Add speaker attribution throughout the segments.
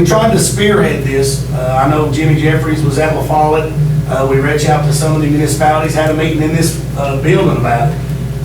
Speaker 1: We tried to spearhead this. Uh, I know Jimmy Jeffries was at La Follette. Uh, we reached out to some of the municipalities, had a meeting in this, uh, building about it.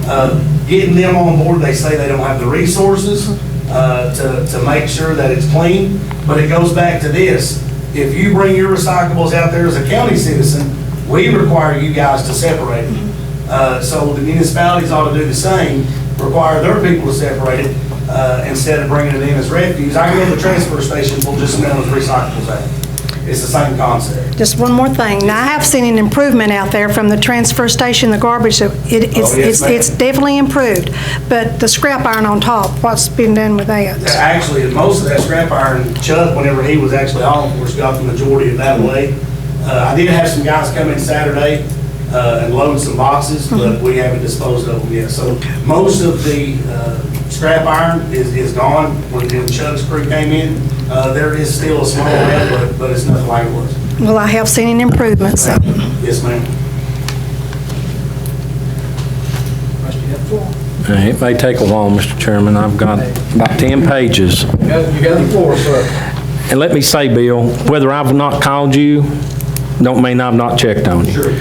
Speaker 1: Uh, getting them on board, they say they don't have the resources, uh, to, to make sure that it's clean. But it goes back to this. If you bring your recyclables out there as a county citizen, we require you guys to separate them. Uh, so the municipalities ought to do the same, require their people to separate it, uh, instead of bringing it in as refuse. I go to the transfer station, we'll just mail as recyclables out. It's the same concept.
Speaker 2: Just one more thing. Now, I have seen an improvement out there from the transfer station, the garbage, it- it's,
Speaker 1: Oh, yes,
Speaker 2: it's
Speaker 1: ma'am.
Speaker 2: it's definitely improved. But the scrap iron on top, what's been done with that?
Speaker 1: Actually, most of that scrap iron, Chuck, whenever he was actually on, of course, got the majority of that way. Uh, I did have some guys come in Saturday, uh, and load some boxes, but we haven't disposed of them yet. So most of the, uh, scrap iron is, is gone. When when Chuck's crew came in, uh, there is still a small amount, but, but it's nothing like it was.
Speaker 2: Well, I have seen an improvement, so.
Speaker 1: Yes, ma'am.
Speaker 3: Uh, It may take a while, Mr. Chairman. I've got about 10 pages.
Speaker 4: You got you got the floor, sir.
Speaker 3: And let me say, Bill, whether I've not called you, don't mean I've not checked on you.
Speaker 1: Sure.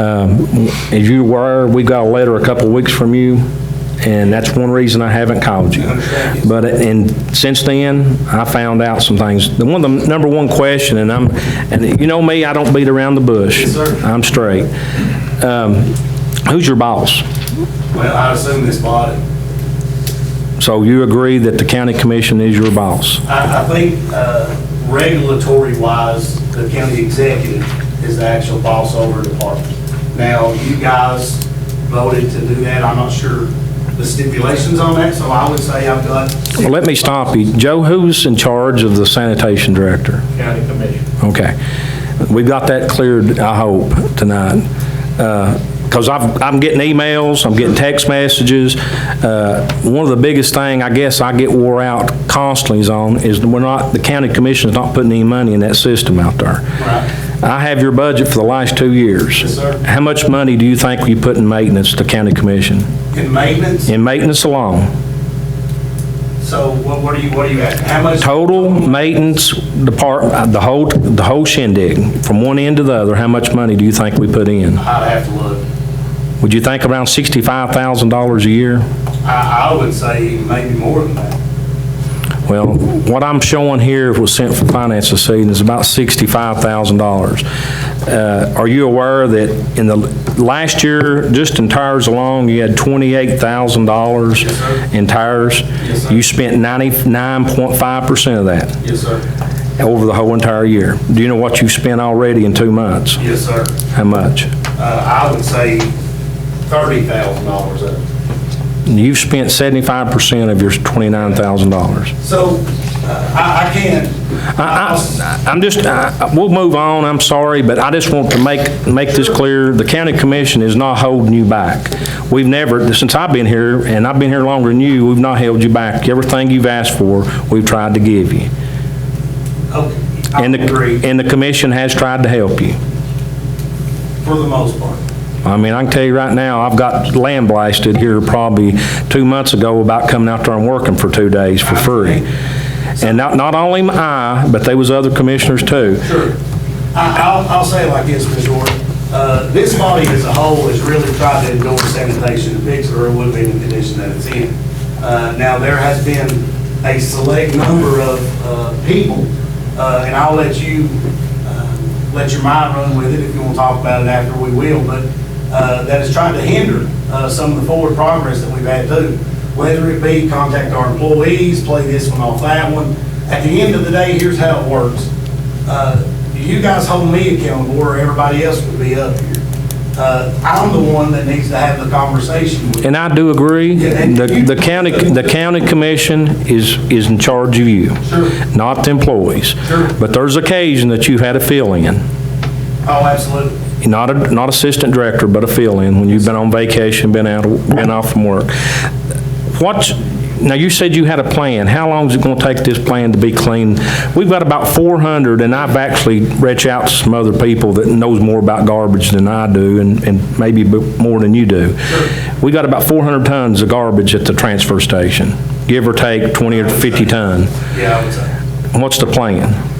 Speaker 3: Um, As you were, we got a letter a couple weeks from you, and that's one reason I haven't called you. But, uh, and since then, I found out some things. The one, the number one question, and I'm, and you know me, I don't beat around the bush.
Speaker 1: Yes, sir.
Speaker 3: I'm straight. Um, Who's your boss?
Speaker 1: Well, I assume this body.
Speaker 3: So you agree that the county commission is your boss?
Speaker 1: I, I think, uh, regulatory wise, the county executive is the actual boss over the department. Now, you guys voted to do that, I'm not sure the stipulations on that, so I would say I've got.
Speaker 3: Well, let me stop you. Joe, who's in charge of the sanitation director?
Speaker 1: County commission.
Speaker 3: Okay. We've got that cleared, I hope, tonight. Because I've, I'm getting emails, I'm getting text messages. Uh, One of the biggest thing, I guess, I get wore out constantly is on, is we're not, the county commission's not putting any money in that system out there.
Speaker 1: Right.
Speaker 3: I have your budget for the last two years.
Speaker 1: Yes, sir.
Speaker 3: How much money do you think you put in maintenance to county commission?
Speaker 1: In maintenance,
Speaker 3: In maintenance alone?
Speaker 1: so what, what are you, what are you at, how much?
Speaker 3: Total maintenance department, the whole, the whole shindig, from one end to the other, how much money do you think we put in?
Speaker 1: I'd have to look,
Speaker 3: Would you think around $65,000 a year?
Speaker 1: I, I would say maybe more than that.
Speaker 3: Well, what I'm showing here was sent for finance this evening is about $65,000. Uh, Are you aware that in the last year, just in tires alone, you had
Speaker 1: Yes,
Speaker 3: $28,000
Speaker 1: sir.
Speaker 3: in tires?
Speaker 1: Yes, sir.
Speaker 3: You spent 99.5% of that
Speaker 1: Yes, sir.
Speaker 3: over the whole entire year. Do you know what you've spent already in two months?
Speaker 1: Yes, sir.
Speaker 3: How much?
Speaker 1: Uh, I would say thirty thousand dollars of it.
Speaker 3: You've spent 75% of your $29,000.
Speaker 1: So, uh, I, I can't.
Speaker 3: I- I- I'm just, I- we'll move on, I'm sorry, but I just want to make, make this clear, the county commission is not holding you back. We've never, since I've been here, and I've been here longer than you, we've not held you back. Everything you've asked for, we've tried to give you.
Speaker 1: Okay, I
Speaker 3: And
Speaker 1: agree,
Speaker 3: the And the commission has tried to help you.
Speaker 1: for the most part.
Speaker 3: I mean, I can tell you right now, I've got land blasted here probably two months ago about coming out there and working for two days for free. And not, not only am I, but there was other commissioners too.
Speaker 1: Sure. I, I'll, I'll say it like this, Ms. Jordan. Uh, this body as a whole has really tried to endorse sanitation to fix it, or it would be in the condition that it's in. Uh, now, there has been a select number of, uh, people, uh, and I'll let you, uh, let your mind run with it if you want to talk about it after, we will, but, uh, that has tried to hinder, uh, some of the forward progress that we've had too. Whether it be contact our employees, play this one off that one. At the end of the day, here's how it works uh, you guys hold me accountable or everybody else would be up here. Uh, I'm the one that needs to have the conversation with you.
Speaker 3: And I do agree, the, the county, the county commission is, is in charge of you.
Speaker 1: Sure.
Speaker 3: Not the employees.
Speaker 1: Sure.
Speaker 3: But there's occasion that you've had a fill-in,
Speaker 1: Oh, absolutely.
Speaker 3: not a, not assistant director, but a fill-in, when you've been on vacation, been out, been off from work. What, now you said you had a plan, how long is it gonna take this plan to be clean? We've got about four hundred, and I've actually reached out to some other people that knows more about garbage than I do, and, and maybe b- more than you do. We got about four hundred tons of garbage at the transfer station, give or take twenty or fifty ton.
Speaker 1: Yeah, I would say.
Speaker 3: What's the plan?